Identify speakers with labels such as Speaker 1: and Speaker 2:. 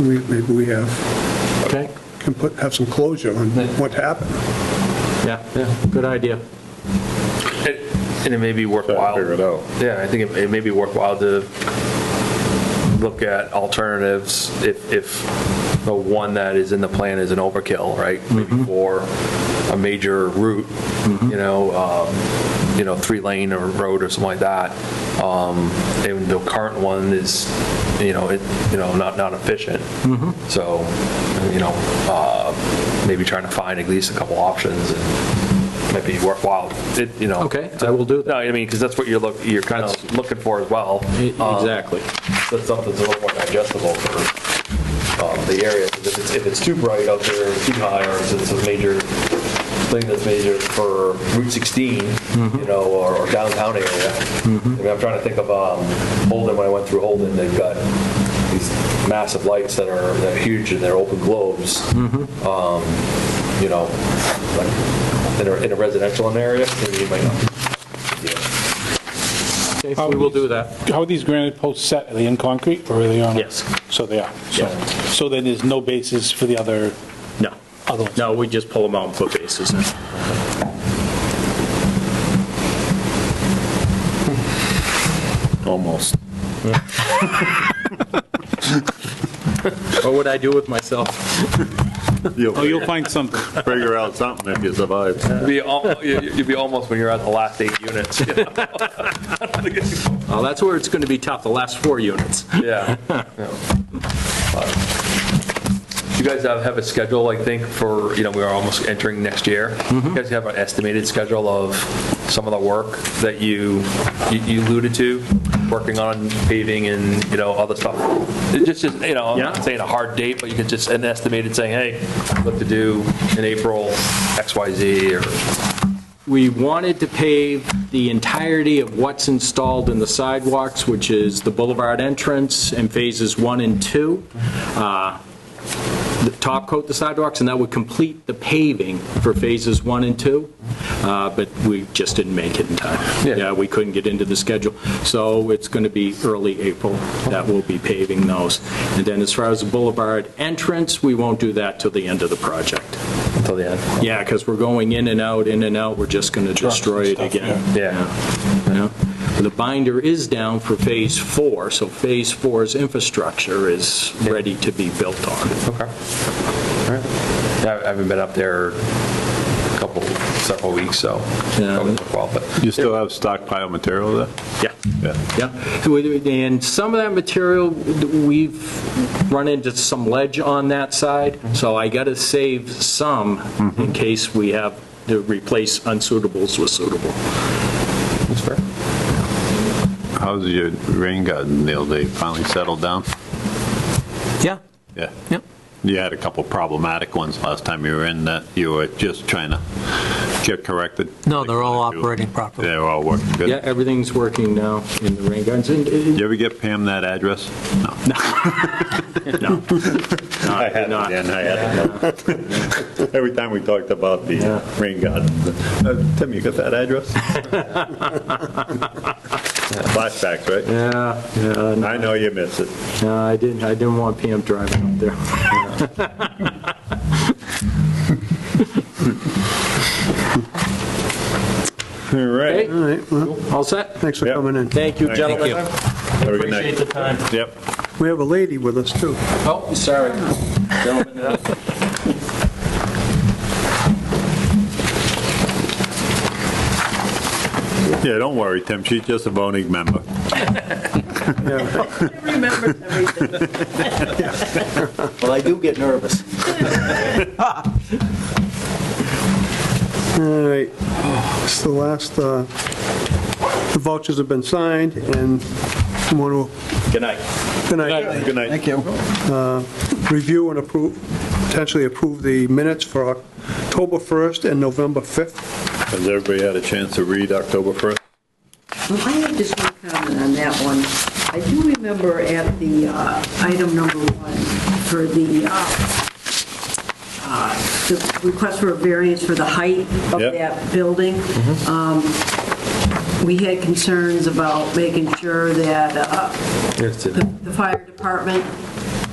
Speaker 1: we, maybe we have,
Speaker 2: Okay,
Speaker 1: can put, have some closure on what happened.
Speaker 2: yeah, yeah, good idea.
Speaker 3: It- And it may be worthwhile.
Speaker 4: Figure it out.
Speaker 3: Yeah, I think it- it may be worthwhile to look at alternatives if, if the one that is in the plan is an overkill, right?
Speaker 4: Mm-hmm.
Speaker 3: Maybe for a major route, you know, um, you know, three-lane or road or something like that. Um, And the current one is, you know, it, you know, not, not efficient.
Speaker 4: Mm-hmm.
Speaker 3: So, you know, uh, maybe trying to find at least a couple options and might be worthwhile, It- you know.
Speaker 2: Okay, I will do that.
Speaker 3: No, I mean, because that's what you're look, you're kind of looking for as well.
Speaker 2: E-
Speaker 3: Um,
Speaker 2: Exactly.
Speaker 3: That's something that's a little more digestible for um, the area. 'Cause If it's, if it's too bright out there, or too high, or if it's a major thing that's major for Route 16, you know, or or downtown area. I mean, I'm trying to think of um, Holden, when I went through Holden, they've got these massive lights that are, that are huge and they're open globes. Um, You know, like in a- in a residential area, maybe you might not
Speaker 2: Okay, so we will do that.
Speaker 5: How are these granite posts set? Are they in concrete or are they on?
Speaker 2: Yes.
Speaker 5: So they are. So-
Speaker 2: Yeah.
Speaker 5: So then there's no basis for the other,
Speaker 2: No,
Speaker 5: other ones?
Speaker 2: no, we just pull them out and put bases in.
Speaker 4: almost.
Speaker 2: What would I do with myself?
Speaker 5: Oh, you'll find something.
Speaker 4: Figure out something if you survive.
Speaker 3: You'd be, al- you- you'd be almost when you're at the last eight units. you know?
Speaker 2: Well, that's where it's going to be tough, the last four units.
Speaker 3: Yeah. yeah. Do you guys have, have a schedule, I think, for, you know, we are almost entering next year?
Speaker 2: Mm-hmm.
Speaker 3: You guys have an estimated schedule of some of the work that you, you- you alluded to, working on paving and, you know, other stuff? It just, just, you know, I'm
Speaker 2: Yeah.
Speaker 3: not saying a hard date, but you could just, an estimated saying, hey, what to do in April, X, Y, Z, or,
Speaker 2: We wanted to pave the entirety of what's installed in the sidewalks, which is the boulevard entrance and phases one and two. Uh, the Top coat the sidewalks, and that would complete the paving for phases one and two, Uh, but we just didn't make it in time.
Speaker 3: Yeah.
Speaker 2: Yeah, we couldn't get into the schedule, so it's going to be early April that we'll be paving those. And then as far as the boulevard entrance, we won't do that till the end of the project.
Speaker 3: until the end.
Speaker 2: Yeah, because we're going in and out, in and out, we're just going to destroy it
Speaker 5: Stuff,
Speaker 2: again.
Speaker 3: yeah.
Speaker 2: Yeah. The binder is down for Phase 4, so Phase 4's infrastructure is ready to be built on.
Speaker 3: Okay. Yeah, I haven't been up there a couple, several weeks, so.
Speaker 2: Yeah.
Speaker 3: probably took a while, but-
Speaker 4: You still have stockpile material there?
Speaker 2: Yeah.
Speaker 4: Yeah.
Speaker 2: Yeah, and some of that material, we've run into some ledge on that side, so I got to save some in case we have to replace unsuitables with suitable.
Speaker 3: That's fair.
Speaker 4: How's your rain garden deal? They finally settled down?
Speaker 2: Yeah,
Speaker 4: Yeah.
Speaker 2: Yep.
Speaker 4: You had a couple problematic ones last time you were in that you were just trying to get corrected?
Speaker 6: No, they're all
Speaker 4: Like,
Speaker 6: operating properly.
Speaker 4: They're all working good?
Speaker 2: yeah, everything's working now in the rain gardens, and and-
Speaker 4: You ever get Pam that address? No.
Speaker 2: No.
Speaker 4: I
Speaker 2: did
Speaker 4: had it,
Speaker 2: not.
Speaker 4: Dan, I had it. Every time we talked about the uh,
Speaker 2: Yeah.
Speaker 4: rain garden, uh, Tim, you got that address? Flashbacks, right?
Speaker 2: Yeah, yeah,
Speaker 4: I know you miss it.
Speaker 2: no, I didn't, I didn't want Pam driving up there.
Speaker 4: All right.
Speaker 1: All right, well,
Speaker 2: All set?
Speaker 1: thanks for
Speaker 4: Yep.
Speaker 1: coming in.
Speaker 2: Thank you,
Speaker 4: Thank you.
Speaker 2: gentlemen.
Speaker 4: Have a good
Speaker 2: Appreciate
Speaker 4: night.
Speaker 2: the time.
Speaker 4: Yep.
Speaker 1: We have a lady with us, too.
Speaker 2: Oh, sorry. Gentlemen,
Speaker 4: Yeah, don't worry, Tim, she's just a voting member.
Speaker 7: remembers everything.
Speaker 2: Well, I do get nervous.
Speaker 1: All right, it's the last, uh, the vouchers have been signed, and I want
Speaker 2: Good night.
Speaker 1: to, good night.
Speaker 4: Good night.
Speaker 1: Review and approve, potentially approve the minutes for October 1st and November 5th.
Speaker 4: Has everybody had a chance to read October 1st?
Speaker 7: I have just one comment on that one. I do remember at the uh, item number one for the, uh, uh, the request for a variance for the height of
Speaker 4: Yep.
Speaker 7: that building. Um, We had concerns about making sure that uh, the the fire department